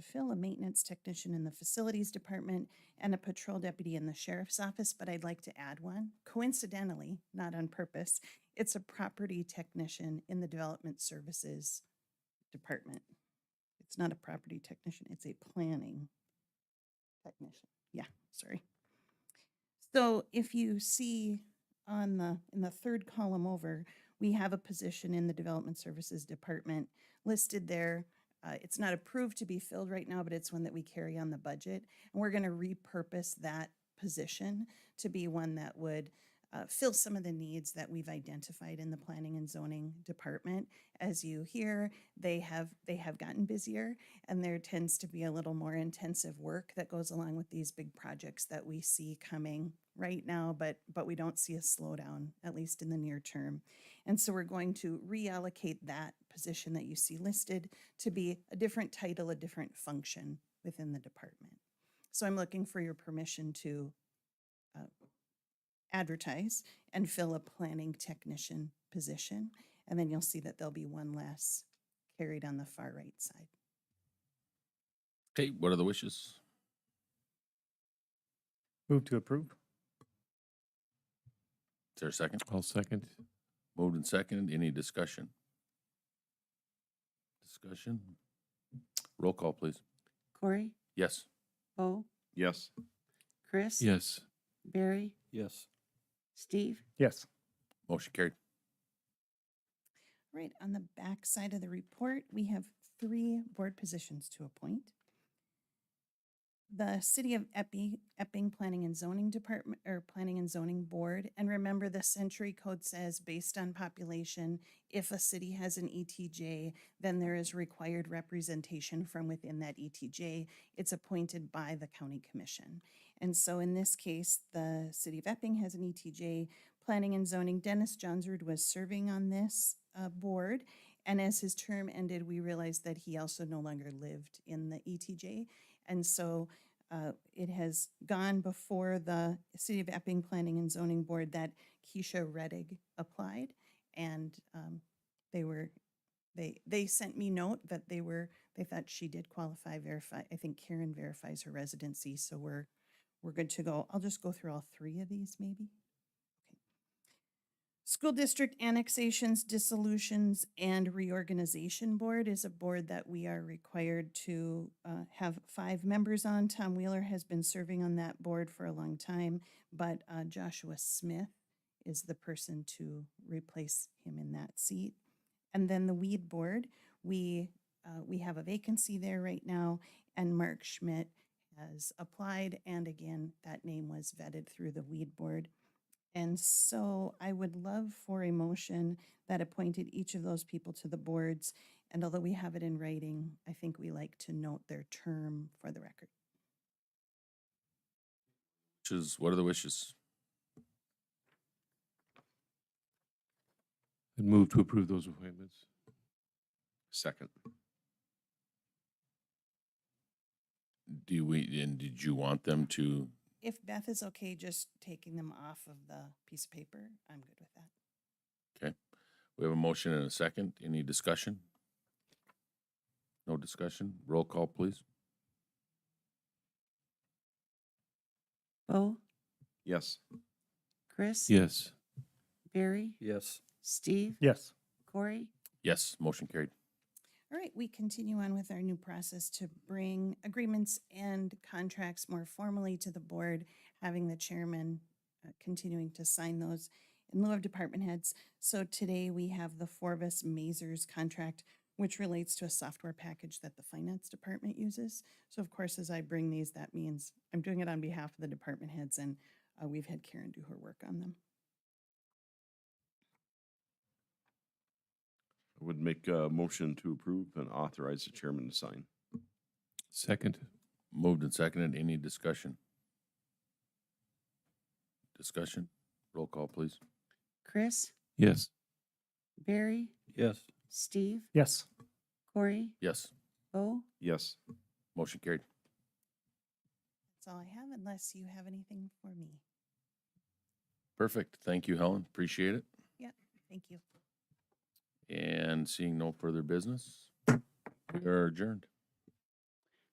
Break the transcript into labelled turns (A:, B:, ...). A: fill a maintenance technician in the facilities department and a patrol deputy in the sheriff's office, but I'd like to add one. Coincidentally, not on purpose, it's a property technician in the development services department. It's not a property technician, it's a planning technician. Yeah, sorry. So if you see on the, in the third column over, we have a position in the Development Services Department listed there. Uh, It's not approved to be filled right now, but it's one that we carry on the budget. And we're going to repurpose that position to be one that would uh, fill some of the needs that we've identified in the Planning and Zoning Department. As you hear, they have, they have gotten busier and there tends to be a little more intensive work that goes along with these big projects that we see coming right now, but, but we don't see a slowdown, at least in the near term. And so we're going to reallocate that position that you see listed to be a different title, a different function within the department. So I'm looking for your permission to uh, advertise and fill a planning technician position. And then you'll see that there'll be one less carried on the far right side.
B: Okay, what are the wishes?
C: Move to approve.
B: Is there a second?
D: I'll second.
B: Moved and seconded. Any discussion? Discussion? Roll call, please.
E: Corey,
B: Yes.
E: Bo,
F: Yes.
E: Chris,
D: Yes.
E: Barry,
D: Yes.
E: Steve,
C: Yes.
B: Motion carried.
A: Right, on the back side of the report, we have three board positions to appoint. The City of Epping, Epping Planning and Zoning Department, or Planning and Zoning Board, and remember the Century Code says, based on population, if a city has an ETJ, then there is required representation from within that ETJ. It's appointed by the county commission. And so in this case, the City of Epping has an E ETJ, Planning and Zoning, Dennis Johnsrud was serving on this uh, board. And as his term ended, we realized that he also no longer lived in the ETJ. And so uh, it has gone before the City of Epping Planning and Zoning Board that Keisha Reddick applied. And um, they were, they, they sent me note that they were, they thought she did qualify, verify. I think Karen verifies her residency, so we're, we're good to go. I'll just go through all three of these maybe. School District Annexations, Dissolutions, and Reorganization Board is a board that we are required to uh, have five members on. Tom Wheeler has been serving on that board for a long time, but uh, Joshua Smith is the person to replace him in that seat. And then the Weed Board, we, uh, we have a vacancy there right now, and Mark Schmidt has applied, and again, that name was vetted through the Weed Board. And so I would love for a motion that appointed each of those people to the boards. And although we have it in writing, I think we like to note their term for the record.
B: Wishes, what are the wishes?
D: And move to approve those appointments.
F: Second.
B: Do we, and did you want them to,
A: If Beth is okay just taking them off of the piece of paper, I'm good with that.
B: we have a motion and a second. Any discussion? No discussion? Roll call, please.
E: Bo,
F: Yes.
E: Chris,
D: Yes.
E: Barry,
D: Yes.
E: Steve,
C: Yes.
E: Corey,
B: Yes, motion carried.
A: All right, we continue on with our new process to bring agreements and contracts more formally to the board, having the chairman uh, continuing to sign those in lieu of department heads. So today we have the Forvis Mazers contract, which relates to a software package that the finance department uses. So of course, as I bring these, that means I'm doing it on behalf of the department heads and uh, we've had Karen do her work on them.
F: I would make a motion to approve and authorize the chairman to sign.
D: Second.
B: Moved and seconded. Any discussion? Discussion? Roll call, please.
E: Chris,
D: Yes.
E: Barry,
D: Yes.
E: Steve,
C: Yes.
E: Corey,
B: Yes,
E: Bo,
F: Yes.
B: motion carried.
A: That's all I have unless you have anything for me.
B: Perfect. Thank you, Helen. Appreciate it.
A: Thank you.
B: And seeing no further business, we are adjourned.